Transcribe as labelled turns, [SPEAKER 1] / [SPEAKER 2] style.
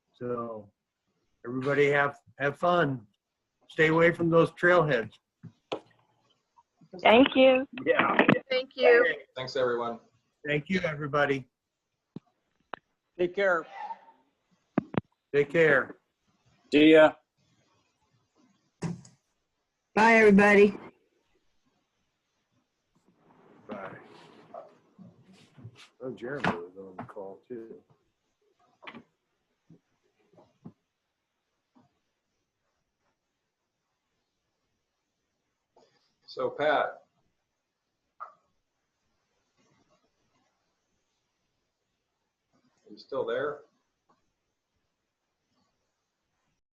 [SPEAKER 1] So everybody have, have fun. Stay away from those trailheads.
[SPEAKER 2] Thank you.
[SPEAKER 1] Yeah.
[SPEAKER 3] Thank you.
[SPEAKER 4] Thanks, everyone.
[SPEAKER 1] Thank you, everybody.
[SPEAKER 5] Take care.
[SPEAKER 1] Take care.
[SPEAKER 6] See ya.
[SPEAKER 7] Bye, everybody.
[SPEAKER 1] Bye. Oh, Jeremy was on the call too.
[SPEAKER 4] So Pat, you still there?